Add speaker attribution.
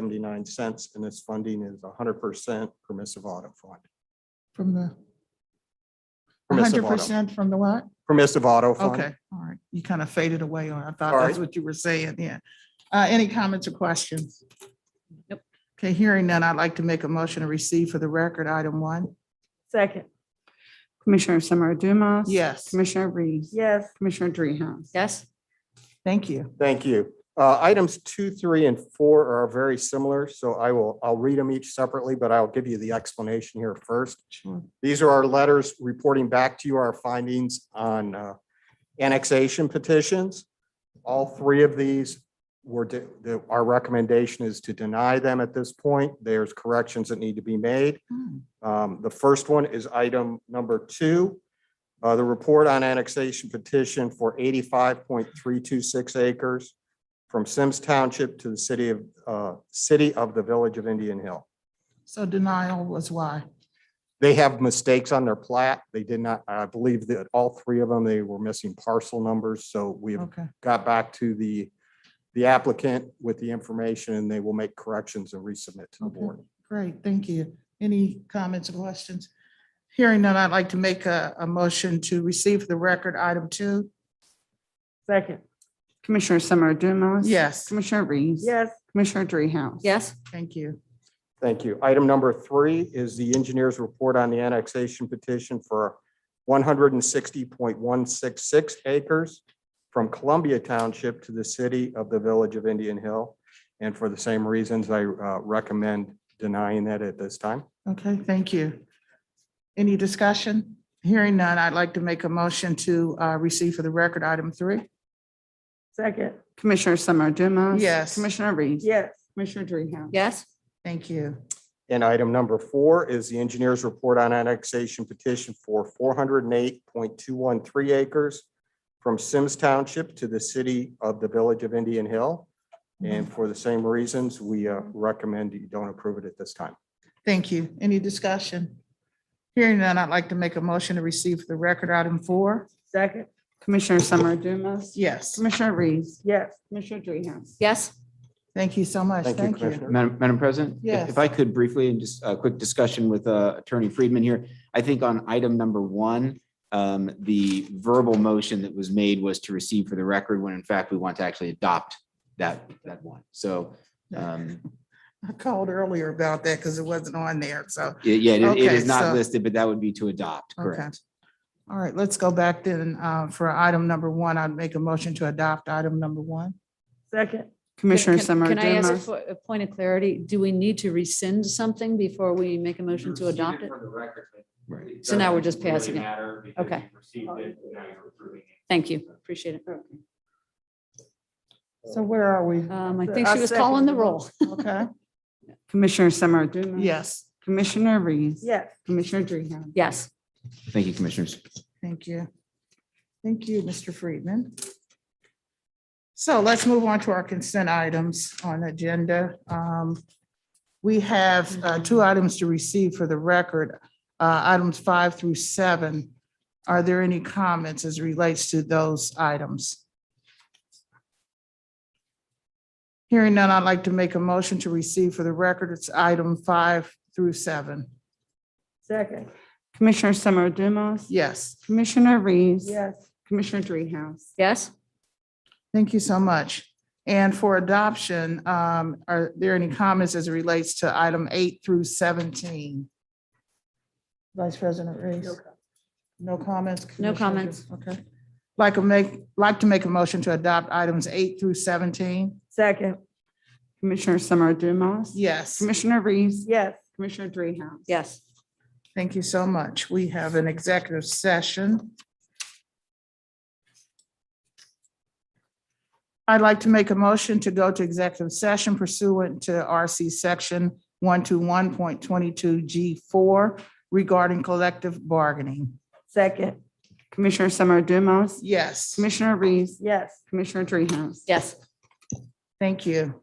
Speaker 1: seventy-nine cents, and this funding is hundred percent permissive auto fund.
Speaker 2: from the
Speaker 1: Permissive
Speaker 2: hundred
Speaker 1: auto,
Speaker 2: percent from the what?
Speaker 1: permissive auto fund.
Speaker 2: Okay, all right. You kind of faded away on, I thought
Speaker 1: All
Speaker 2: that's
Speaker 1: right.
Speaker 2: what you were saying, yeah. Uh, any comments or questions? Nope. Okay, hearing none, I'd like to make a motion to receive for the record item one.
Speaker 3: Second.
Speaker 4: Commissioner Summer Dumas.
Speaker 2: Yes,
Speaker 4: Commissioner Reese.
Speaker 3: Yes.
Speaker 4: Commissioner Dreehouse.
Speaker 5: yes,
Speaker 2: thank you.
Speaker 1: Thank you. Uh, Items two, three, and four are very similar, so I will, I'll read them each separately, but I'll give you the explanation here first.
Speaker 2: Sure.
Speaker 1: These are our letters reporting back to you our findings on uh, annexation petitions. All three of these were, de- the- our recommendation is to deny them at this point. There's corrections that need to be made.
Speaker 2: Hmm.
Speaker 1: Um, The first one is item number two. Uh, The report on annexation petition for eighty-five point three two six acres from Sims Township to the city of, uh, city of the Village of Indian Hill.
Speaker 2: So denial was why?
Speaker 1: They have mistakes on their plat. They did not, I believe that all three of them, they were missing parcel numbers. So we have
Speaker 2: Okay,
Speaker 1: got back to the, the applicant with the information and they will make corrections and resubmit to the
Speaker 2: Okay.
Speaker 1: board.
Speaker 2: great, thank you. Any comments or questions? Hearing none, I'd like to make a, a motion to receive for the record item two.
Speaker 3: Second.
Speaker 4: Commissioner Summer Dumas.
Speaker 2: Yes,
Speaker 4: Commissioner Reese.
Speaker 3: Yes.
Speaker 4: Commissioner Dreehouse.
Speaker 5: yes,
Speaker 2: thank you.
Speaker 1: Thank you. Item number three is the engineer's report on the annexation petition for one hundred and sixty point one six six acres from Columbia Township to the city of the Village of Indian Hill. And for the same reasons, I uh, recommend denying that at this time.
Speaker 2: Okay, thank you. Any discussion? Hearing none, I'd like to make a motion to uh, receive for the record item three.
Speaker 3: Second.
Speaker 4: Commissioner Summer Dumas.
Speaker 2: Yes.
Speaker 4: Commissioner Reese.
Speaker 3: Yes.
Speaker 4: Commissioner Dreehouse.
Speaker 5: yes,
Speaker 2: Thank you.
Speaker 1: And item number four is the engineer's report on annexation petition for four hundred and eight point two one three acres from Sims Township to the city of the Village of Indian Hill. And for the same reasons, we uh, recommend you don't approve it at this time.
Speaker 2: Thank you. Any discussion? Hearing none, I'd like to make a motion to receive for the record item four.
Speaker 3: Second.
Speaker 4: Commissioner Summer Dumas.
Speaker 2: Yes,
Speaker 4: Commissioner Reese.
Speaker 3: Yes.
Speaker 4: Commissioner Dreehouse.
Speaker 5: yes,
Speaker 2: thank you so much.
Speaker 1: Thank you,
Speaker 2: Thank you.
Speaker 1: Commissioner.
Speaker 6: Madam, Madam President? if-
Speaker 2: Yes.
Speaker 6: If I could briefly, and just a quick discussion with uh, Attorney Friedman here, I think on item number one, um, the verbal motion that was made was to receive for the record, when in fact we want to actually adopt that, that one. So, um,
Speaker 2: I called earlier about that because it wasn't on there. So,
Speaker 6: y- yeah, it- it
Speaker 2: Okay, so-
Speaker 6: is not listed, but that would be to adopt,
Speaker 2: Okay.
Speaker 6: correct?
Speaker 2: all right, let's go back then uh, for item number one. I'd make a motion to adopt item number one.
Speaker 3: Second.
Speaker 4: Commissioner
Speaker 5: Can-
Speaker 4: Summer
Speaker 5: Can I ask
Speaker 4: Dumas.
Speaker 5: for a point of clarity? Do we need to rescind something before we make a motion to adopt it?
Speaker 6: Right.
Speaker 5: So now we're just passing it. Okay. Thank you. Appreciate it.
Speaker 2: So where are we?
Speaker 5: Um, I think
Speaker 3: I
Speaker 5: she was calling the
Speaker 3: second.
Speaker 5: roll.
Speaker 2: Okay,
Speaker 4: Commissioner Summer Dumas.
Speaker 2: yes,
Speaker 4: Commissioner Reese.
Speaker 3: Yes.
Speaker 4: Commissioner Dreehouse.
Speaker 5: Yes,
Speaker 6: Thank you, Commissioners.
Speaker 2: thank you. Thank you, Mr. Friedman. So let's move on to our consent items on the agenda. Um, We have uh, two items to receive for the record, uh, items five through seven. Are there any comments as relates to those items? Hearing none, I'd like to make a motion to receive for the record. It's item five through seven.
Speaker 3: Second.
Speaker 4: Commissioner Summer Dumas.
Speaker 2: Yes.
Speaker 4: Commissioner Reese.
Speaker 3: Yes.
Speaker 4: Commissioner Dreehouse.
Speaker 5: yes,
Speaker 2: Thank you so much. And for adoption, um, are there any comments as it relates to item eight through seventeen? Vice President Reese? No comments?
Speaker 5: No
Speaker 2: Commissioner?
Speaker 5: comments.
Speaker 2: Okay. Like to make, like to make a motion to adopt items eight through seventeen?
Speaker 3: Second.
Speaker 4: Commissioner Summer Dumas.
Speaker 2: Yes.
Speaker 4: Commissioner Reese.
Speaker 3: Yes.
Speaker 4: Commissioner Dreehouse.
Speaker 5: yes.
Speaker 2: Thank you so much. We have an executive session. I'd like to make a motion to go to executive session pursuant to RC Section 121.22G4 regarding collective bargaining.
Speaker 3: Second.
Speaker 4: Commissioner Summer Dumas.
Speaker 2: Yes,
Speaker 4: Commissioner Reese.
Speaker 3: Yes.
Speaker 4: Commissioner Dreehouse.
Speaker 5: Yes.
Speaker 2: thank you.